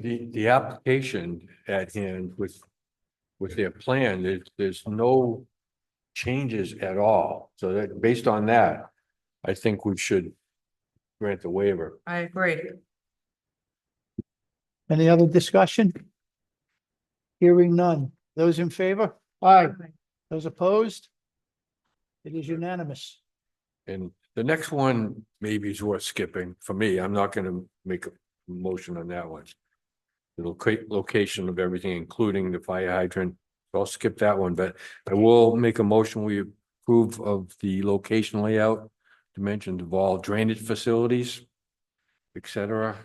the, the application at hand with, with their plan, there's, there's no changes at all. So that, based on that, I think we should grant the waiver. I agree. Any other discussion? Hearing none. Those in favor? Aye. Those opposed? It is unanimous. And the next one maybe is worth skipping for me. I'm not gonna make a motion on that one. The loca- location of everything, including the fire hydrant. So I'll skip that one, but I will make a motion. We approve of the location layout, dimensions of all drainage facilities, et cetera.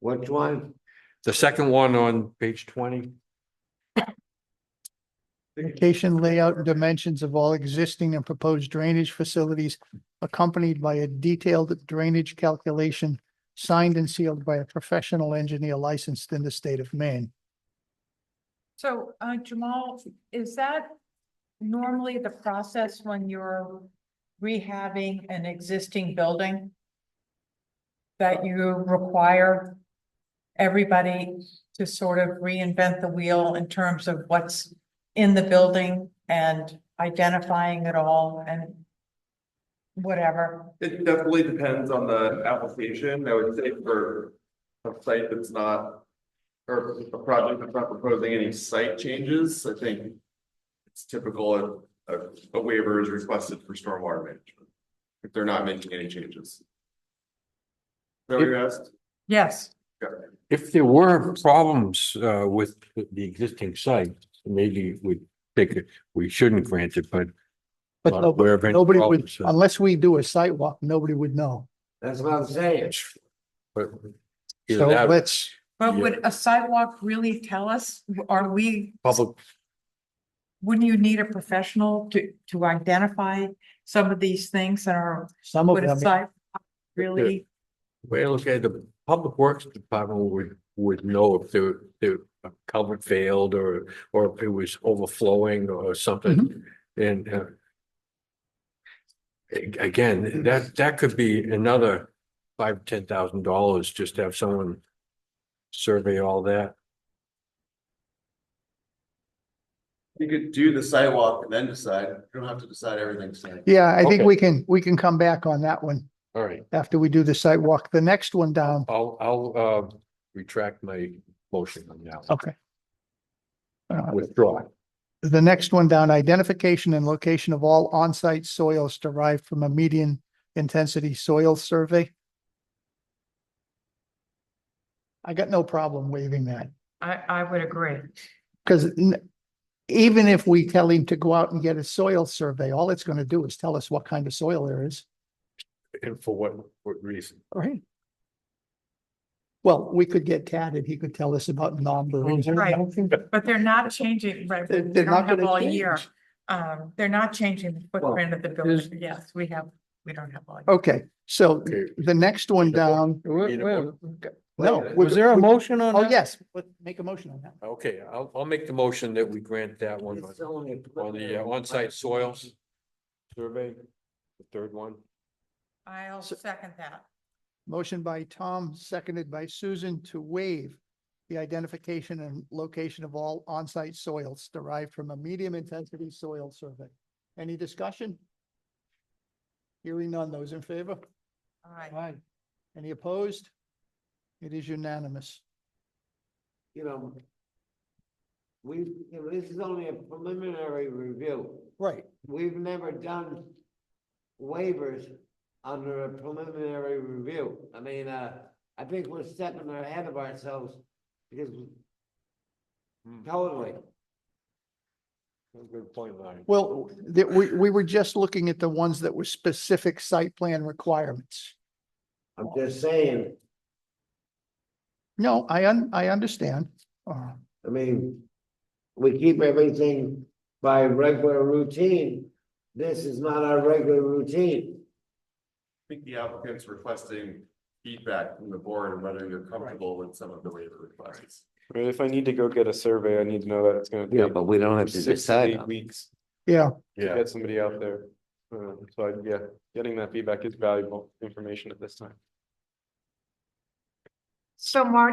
Which one? The second one on page twenty. Location, layout, and dimensions of all existing and proposed drainage facilities accompanied by a detailed drainage calculation signed and sealed by a professional engineer licensed in the state of Maine. So, uh, Jamal, is that normally the process when you're rehabbing an existing building? That you require everybody to sort of reinvent the wheel in terms of what's in the building and identifying it all and whatever? It definitely depends on the application, I would say for a site that's not. Or a project that's not proposing any site changes, I think. It's typical, a, a waiver is requested for stormwater management. If they're not making any changes. Is that what you asked? Yes. If there were problems uh with the existing site, maybe we take it, we shouldn't grant it, but. But no- Where any nobody would, problems, uh, unless we do a site walk, nobody would know. That's what I'm saying. But. either So that or let's, But Yeah. would a sidewalk really tell us? Are we Public, Wouldn't you need a professional to, to identify some of these things that are, some of would a them, site really? well, okay, the public works department would would know if the the culvert failed or or if it was overflowing or something Mm-hmm. and uh. a- Again, that that could be another five, ten thousand dollars just to have someone survey all that. You could do the sidewalk and then decide, you don't have to decide everything tonight. yeah, I think Okay. we can, we can come back on that one All right, after we do the site walk. The next one down. I'll I'll uh retract my motion on that. one. Okay. Uh, Withdraw. The next one down, identification and location of all on-site soils derived from a median intensity soil survey. I got no problem waiving that, I, I would agree. because even if we tell him to go out and get a soil survey, all it's going to do is tell us what kind of soil there is, And for what what reason? right? Well, we could get tatted. He could tell us about non-berries. Right. But they're not changing, right? They're- we they're don't not have gonna all year. change. Um, they're not changing the footprint of the there's- building. Yes, we have, we don't have all year. Okay, so Okay. the next one down, You Wait, know, uh, wait, no. we- Was there a we- motion on Oh, that? yes, but make a motion on that. Okay, I'll, I'll make the motion that we grant that one on on the uh, on-site soils survey, the third one. I'll So- second that. Motion by Tom, seconded by Susan to waive the identification and location of all on-site soils derived from a medium intensity soil survey. Any discussion? Hearing none, those in favor? All right. Aye. Any opposed? It is unanimous. you know, we, you know, this is only a preliminary review. Right. We've never done waivers under a preliminary review. I mean, uh, I think we're stepping ahead of ourselves because we- Hmm. totally. Good point, Larry. Well, that we, we were just looking at the ones that were specific site plan requirements. I'm just saying, No, I un, I understand. Uh, I mean, we keep everything by regular routine. This is not our regular routine. I think the applicant's requesting feedback from the board and whether you're comfortable with some of the waiver requests. I mean, if I need to go get a survey, I need to know that it's gonna take we don't six to eight weeks Yeah, to Yeah, get somebody out there. Um, so I, yeah, getting that feedback is valuable information at this time. So Marty